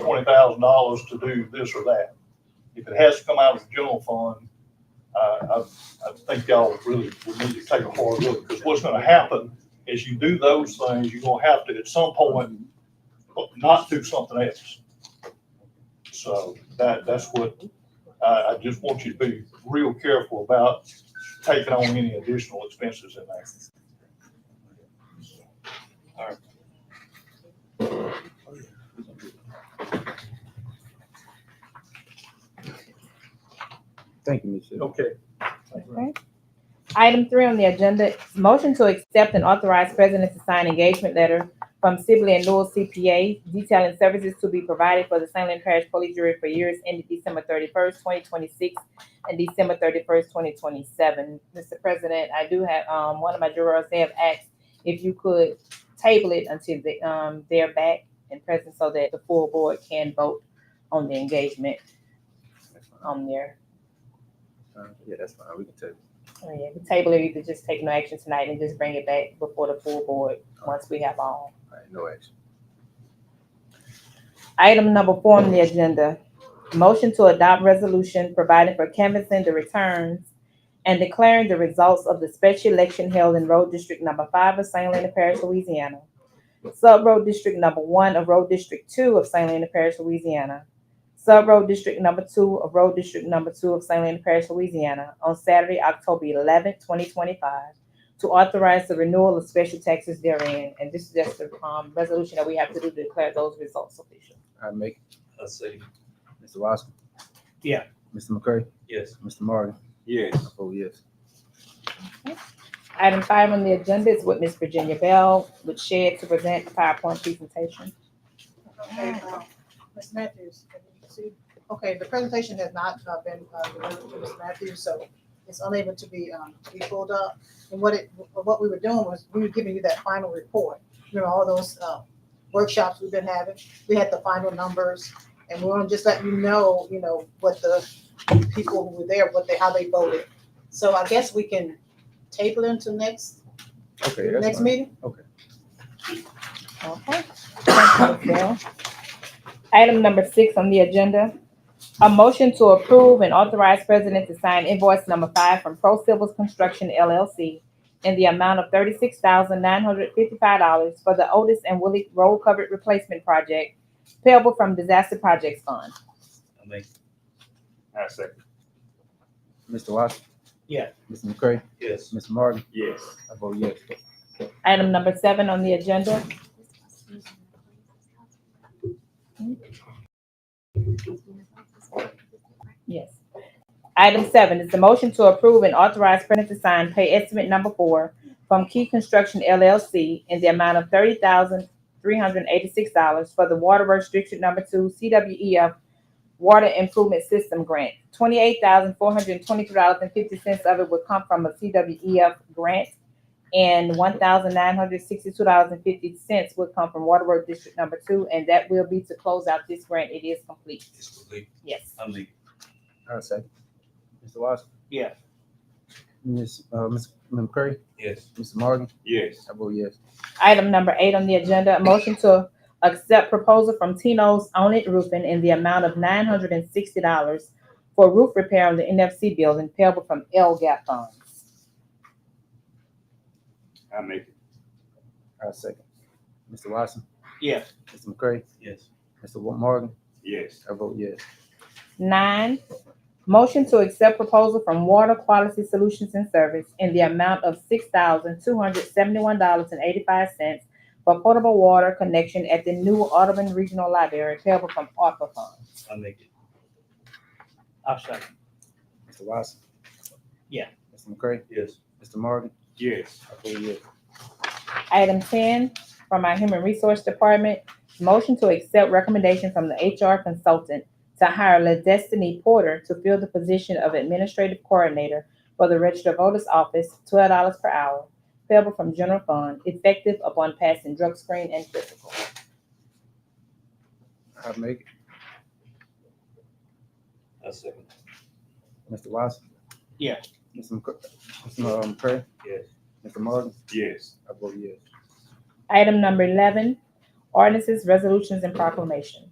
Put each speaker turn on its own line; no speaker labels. twenty thousand dollars to do this or that. If it has to come out of the general fund, uh, I, I think y'all really would need to take a hard look, because what's gonna happen is you do those things, you're gonna have to at some point not do something else. So that, that's what, I, I just want you to be real careful about taking on any additional expenses in there.
Thank you, Ms. Hill.
Okay.
Item three on the agenda, motion to accept and authorize president to sign engagement letter from Sibley and Newell CPA detailing services to be provided for the St. Lin Parish Police Jury for years ended December thirty-first, twenty twenty-six and December thirty-first, twenty twenty-seven. Mr. President, I do have, um, one of my jurors, they have asked if you could table it until they, um, they're back and present so that the full board can vote on the engagement on there.
Yeah, that's fine, we can table.
Oh, yeah, the table it, you could just take no action tonight and just bring it back before the full board, once we have all.
All right, no action.
Item number four on the agenda, motion to adopt resolution providing for canvassing the returns and declaring the results of the special election held in Road District Number Five of St. Helena Parish, Louisiana. Sub-Road District Number One of Road District Two of St. Helena Parish, Louisiana. Sub-Road District Number Two of Road District Number Two of St. Helena Parish, Louisiana, on Saturday, October eleventh, twenty twenty-five, to authorize the renewal of special taxes therein, and this is just the, um, resolution that we have to do to declare those results official.
I make, it.
Let's see.
Mr. Roscoe?
Yeah.
Mr. McCray?
Yes.
Mr. Morgan?
Yes.
I vote yes.
Item five on the agenda is with Miss Virginia Bell, with Shed to present the PowerPoint presentation.
Okay, uh, Ms. Matthews, can you see? Okay, the presentation has not uh, been uh, delivered to Ms. Matthews, so it's unable to be, um, to be pulled up. And what it, what we were doing was, we were giving you that final report. You know, all those uh, workshops we've been having, we had the final numbers. And we want to just let you know, you know, what the people who were there, what they, how they voted. So I guess we can table it until next,
Okay, that's
next
fine.
meeting?
Okay. Thank you, Ms. Bell. Item number six on the agenda, a motion to approve and authorize president to sign invoice number five from Pro Civils Construction LLC in the amount of thirty-six thousand nine hundred fifty-five dollars for the Otis and Willie Road Covered Replacement Project payable from Disaster Projects Fund.
I make.
I second.
Mr. Roscoe?
Yeah.
Mr. McCray?
Yes.
Mr. Morgan?
Yes.
I vote yes.
Item number seven on the agenda, Yes. Item seven is the motion to approve and authorize printer to sign pay estimate number four from Key Construction LLC in the amount of thirty thousand three hundred eighty-six dollars for the Waterworks District Number Two CWEF Water Improvement System Grant. Twenty-eight thousand four hundred twenty-three dollars and fifty cents of it would come from a CWEF grant and one thousand nine hundred sixty-two dollars and fifty cents would come from Waterworks District Number Two, and that will be to close out this grant. It is complete.
This will be,
Yes.
I make.
I second. Mr. Roscoe?
Yeah.
Ms., uh, Ms. McCray?
Yes.
Mr. Morgan?
Yes.
I vote yes.
Item number eight on the agenda, a motion to accept proposal from Tino's Own It Roofing in the amount of nine hundred and sixty dollars for roof repair on the NFC building payable from LGAP funds.
I make it.
I second. Mr. Watson?
Yeah.
Mr. McCray?
Yes.
Mr. Wa- Morgan?
Yes.
I vote yes.
Nine, motion to accept proposal from Water Quality Solutions and Service in the amount of six thousand two hundred seventy-one dollars and eighty-five cents for portable water connection at the new Audubon Regional Library payable from ARPA funds.
I make it.
I'll second.
Mr. Watson?
Yeah.
Mr. McCray?
Yes.
Mr. Morgan?
Yes.
I vote yes.
Item ten, from our Human Resource Department, motion to accept recommendation from the HR consultant to hire LaDestiny Porter to fill the position of Administrative Coordinator for the Registered Voters Office, twelve dollars per hour, payable from general fund, effective upon passing drug screen and physical.
I make
I second.
it. Mr. Watson?
Yeah.
Mr. McCray? Mr. McCray?
Yes.
Mr. um, Morgan?
Yes.
I vote yes.
Item number eleven, ordinances, resolutions, and proclamation.